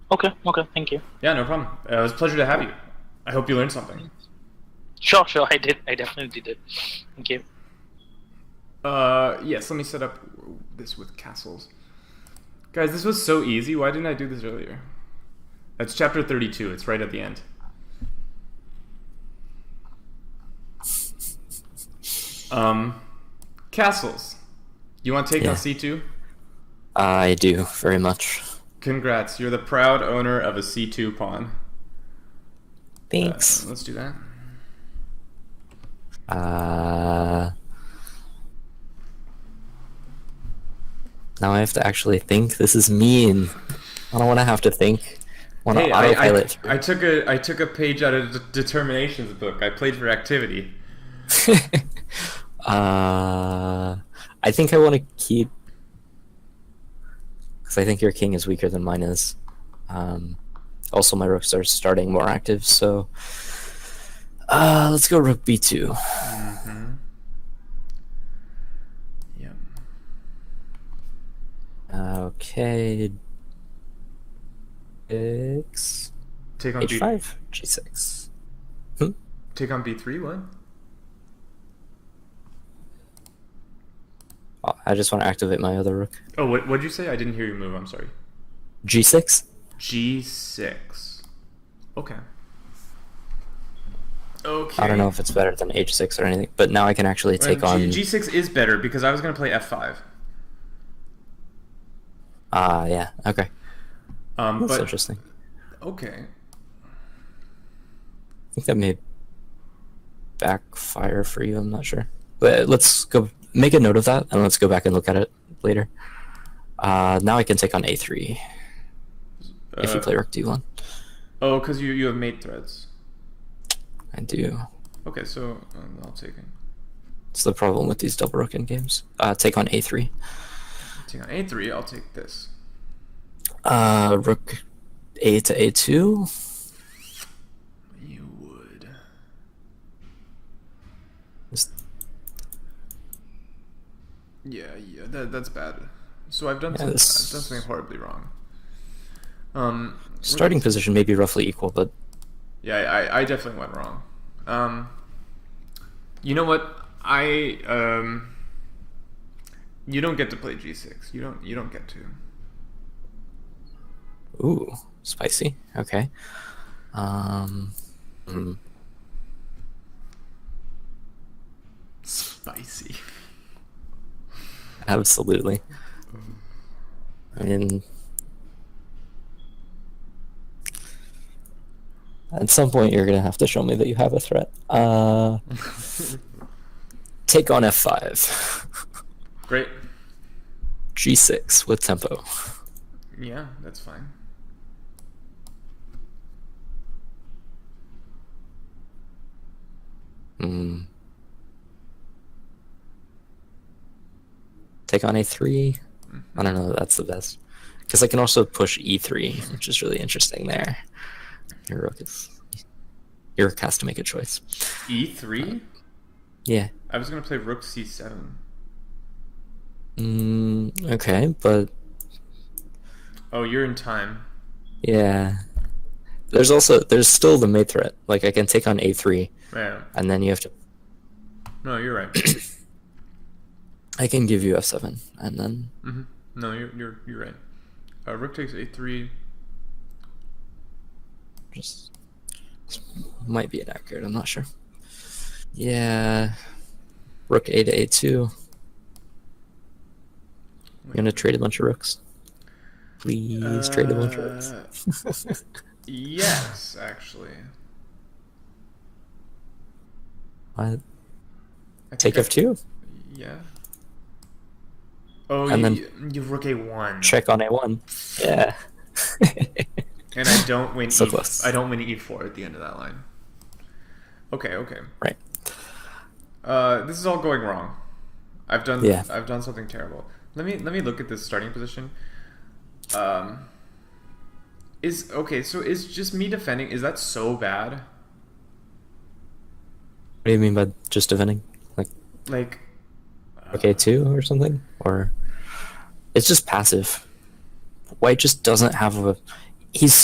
Okay, okay, thank you. Yeah, no problem. Uh, it was a pleasure to have you. I hope you learned something. Sure, sure, I did. I definitely did. Thank you. Uh, yes, let me set up this with castles. Guys, this was so easy. Why didn't I do this earlier? That's chapter 32. It's right at the end. Um, castles. You want to take Yeah. on C2? I do very much. Congrats. You're the proud owner of a C2 pawn. Uh, Thanks. let's do that. Uh, now I have to actually think. This is mean. I don't want to have to think. Want to Hey, I, I, autopilot. I took a I took a page out of D- Determination's book. I played for activity. uh, I think I want to keep because I think your king is weaker than mine is. Um, also, my rooks are starting more active, so uh, let's go rook b2. Yep. Okay, six Take on B h5 g6. take on B three. What? Oh, I just want to activate my other rook. Oh, what what'd you say? I didn't hear you move. I'm sorry. G6. G six. Okay. Okay. I don't know if it's better than H6 or anything, but now I can actually take on. G six is better because I was gonna play F five. Ah, yeah. Okay. Um, That's but interesting. okay. I think that may backfire for you. I'm not sure. But let's go make a note of that, and let's go back and look at it later. Uh, now I can take on A3 if you Uh, play Rook D1. Oh, because you you have mate threads. I do. Okay, so um, I'll take it. It's the problem with these double rook in games. Uh, take on A3. Take on A three. I'll take this. Uh, rook A to A2. You would. Just- Yeah, yeah, that, that's bad. So I've done, Yeah, something, this- I've done something horribly wrong. Um, we're- Starting position may be roughly equal, but Yeah, I, I- I definitely went wrong. Um, you know what? I um. You don't get to play G6. You don't. You don't get to. ooh, spicy. Okay. Um, hmm. Spicy. Absolutely. I mean, at some point you're gonna have to show me that you have a threat. Uh, take on f5, Great. g6 with tempo. Yeah, that's fine. Hmm. Take on a3. I don't know. that That's the best because I can also push e3, which is really interesting there. Your rook is. Your rook has to make a choice. E3. Yeah. E I was gonna play Rook C7. Mm, okay, but Oh, you're in time. yeah. There's also there's still the mate threat. Like I can take on a3, Yeah. and then you have to. No, you're right. I can give you f7, and then hmm No, you're you're you're right. Uh, rook takes a3. just might be inaccurate. I'm not sure. Yeah, rook a to a2. I'm gonna trade a bunch of rooks. Please trade a bunch of Uh, rooks. yes, actually. I What? Uh, Take think I- f2. Yeah. Oh, you, And then- you- you rook a1. Check on a1. Yeah. And I don't win. So e, close. I don't win e4 at the end of that line. Okay, okay. right. Uh, this is all going wrong. I've done. Yeah. I've done something terrible. Let me let me look at this starting position. Um. Is okay. So is just me defending? Is that so bad? What do you mean by just defending? Like Like. okay two or something? Or it's just passive. White just doesn't have a he's